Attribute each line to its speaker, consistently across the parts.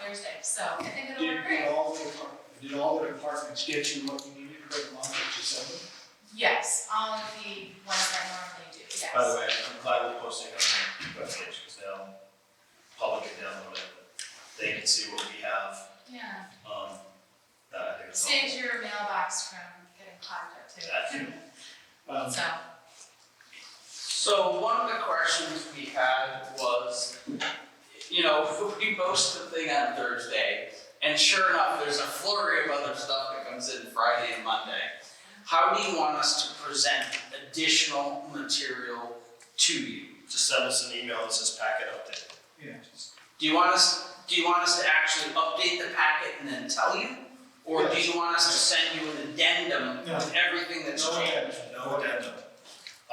Speaker 1: Thursday, so I think it'll
Speaker 2: Did,
Speaker 1: work
Speaker 2: did
Speaker 1: great.
Speaker 2: all the, depart- did all the departments get you what you needed for the month of December?
Speaker 1: Yes, all of the ones that I normally do, yes.
Speaker 3: By the way, I'm glad we're posting on the webpage, because now public can download it, but they can see what we have,
Speaker 1: Yeah,
Speaker 3: um, that I think is helpful.
Speaker 1: saves your mailbox from getting clogged up too.
Speaker 3: Exactly.
Speaker 2: Um,
Speaker 1: So,
Speaker 4: So one of the questions we had was, you know, if we post the thing on Thursday, and sure enough, there's a flurry of other stuff that comes in Friday and Monday. How do you want us to present additional material to you?
Speaker 3: Just send us an email that says packet update.
Speaker 2: yeah, just-
Speaker 4: Do you want us, do you want us to actually update the packet and then tell you? Or do you want us to send you an addendum with everything that's
Speaker 2: No
Speaker 4: changed?
Speaker 2: addendum,
Speaker 3: No addendum.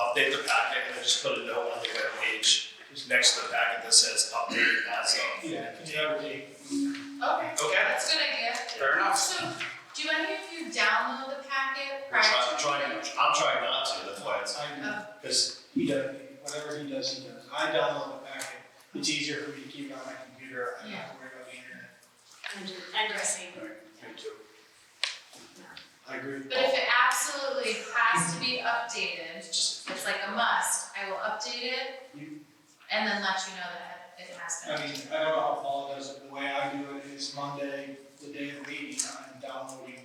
Speaker 3: Update the packet and then just put a note on the webpage next to the packet that says update as of.
Speaker 2: Yeah, because the other day,
Speaker 1: okay,
Speaker 3: Okay?
Speaker 1: that's a good idea.
Speaker 4: Fair enough.
Speaker 1: So, do any of you download the packet
Speaker 3: We're
Speaker 1: prior to?
Speaker 3: trying, trying, I'm trying not to, that's why it's,
Speaker 2: I,
Speaker 1: Oh,
Speaker 3: because
Speaker 2: he does, whatever he does, he does. I download the packet. It's easier for me to keep it on my computer. I don't have to worry about the internet.
Speaker 5: I do, I do the same word.
Speaker 2: Me too. I agree with
Speaker 1: But if
Speaker 2: Paul.
Speaker 1: it absolutely has to be updated,
Speaker 3: just,
Speaker 1: it's like a must, I will update it and then let you know that it has been.
Speaker 2: I mean, I don't know how Paul does it. The way I do it is Monday, the day of the meeting, I'm downloading.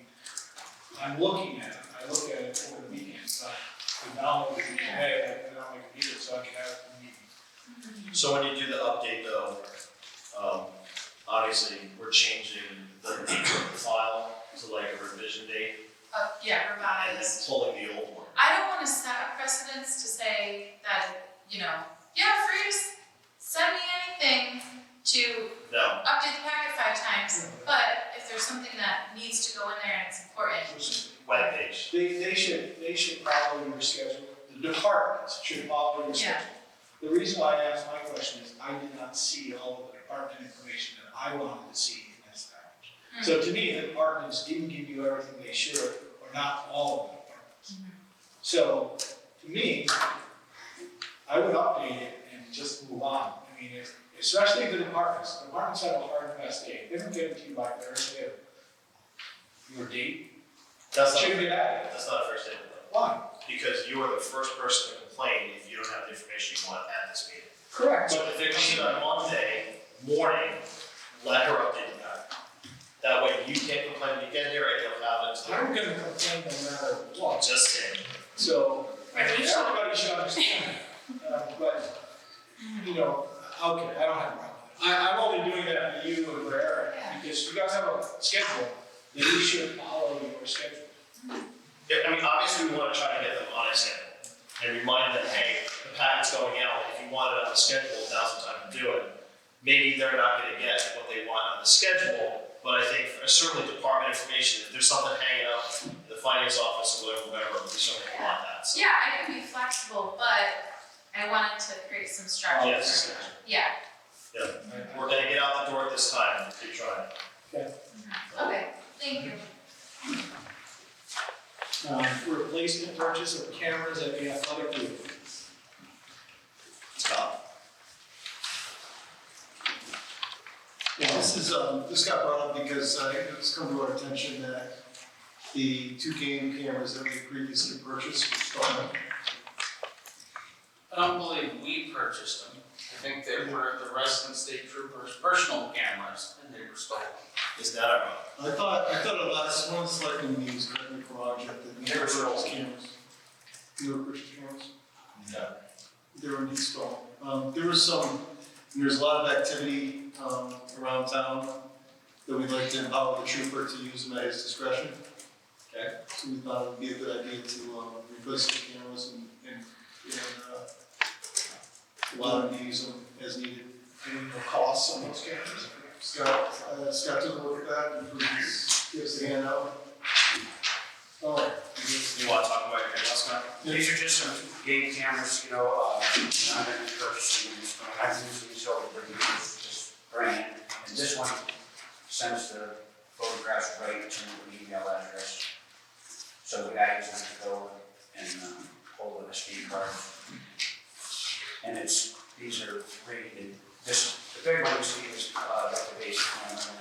Speaker 2: I'm looking at it. I look at it over the weekend, so I download it today, I put it on my computer so I can have it for the meeting.
Speaker 3: so when you do the update though, um, obviously, we're changing the name of the file to like a revision date
Speaker 1: Uh, yeah,
Speaker 3: and then
Speaker 1: revised.
Speaker 3: pulling the old one.
Speaker 1: I don't wanna set a precedence to say that, you know, yeah, free to s- send me anything to
Speaker 3: No,
Speaker 1: update the packet five times, but if there's something that needs to go in there and it's important,
Speaker 3: webpage.
Speaker 2: They, they should, they should follow your schedule, the departments should follow your schedule. The reason why I asked my question is I did not see all of the department information that I wanted to see in this package. So to me, the departments didn't give you everything they should, or not all of the departments. So, to me, I would update it and just move on. I mean, if- especially the departments, the departments have a hard and fast date, they don't get it to you by Thursday or your date,
Speaker 3: That's not,
Speaker 2: should be that,
Speaker 3: that's not a fair statement though,
Speaker 2: why?
Speaker 3: because you are the first person to complain if you don't have the information you want at this meeting.
Speaker 2: Correct.
Speaker 3: So if it comes in on Monday morning, let her update the packet. That way you can't complain when you get here, I don't have it.
Speaker 2: I'm gonna complain no matter what,
Speaker 3: Just saying,
Speaker 2: so,
Speaker 5: Right, we should-
Speaker 2: everybody should understand, uh, but, you know, okay, I don't have a problem. I, I'm only doing that for you and for Eric,
Speaker 1: Yeah.
Speaker 2: because you guys have a schedule, then you should follow your schedule.
Speaker 3: Yeah, I mean, obviously, we wanna try to get them on a schedule, and remind them, hey, the packet's going out, if you want it on the schedule, now's the time to do it. Maybe they're not gonna get what they want on the schedule, but I think for- certainly department information, if there's something hanging up in the finance office or whatever, whatever, we certainly want that, so.
Speaker 1: Yeah, I can be flexible, but I wanted to create some structure.
Speaker 3: Yes.
Speaker 1: Yeah,
Speaker 2: I- I-
Speaker 3: We're gonna get out the door at this time, keep trying.
Speaker 1: okay, thank you.
Speaker 2: Um, replacement purchase of cameras at the athletic field.
Speaker 3: Stop.
Speaker 6: Yeah, this is, um, this got brought up because, uh, it's come to our attention that the two game cameras that we previously purchased were stolen.
Speaker 4: I don't believe we purchased them. I think they were the Reston State Troopers' personal cameras, and they were stolen.
Speaker 3: Is that our,
Speaker 6: I thought, I thought at last one selecting these, correct me if I'm wrong, Jeff, that
Speaker 3: They were stolen.
Speaker 6: cameras. They were purchased cameras?
Speaker 3: no,
Speaker 6: they were installed. Um, there was some, there was a lot of activity, um, around town that we'd like to empower the trooper to use them at his discretion.
Speaker 3: Okay.
Speaker 6: So we thought it would be a good idea to, um, replace the cameras and, and, and, uh, allow him to use them as needed.
Speaker 2: And the cost of those cameras.
Speaker 6: Scott, uh, Scott took a look at that and gives, gives the handout. Oh,
Speaker 3: you wanna talk about your handouts, Scott?
Speaker 7: These are just some game cameras, you know, uh, I'm gonna be purchasing these, but I usually sell the brand, this brand. And this one sends the photographs right to an email address. So the guy doesn't have to go and, um, pull an SD card. And it's, these are rated, this, the big one you see is, uh, like the basic one,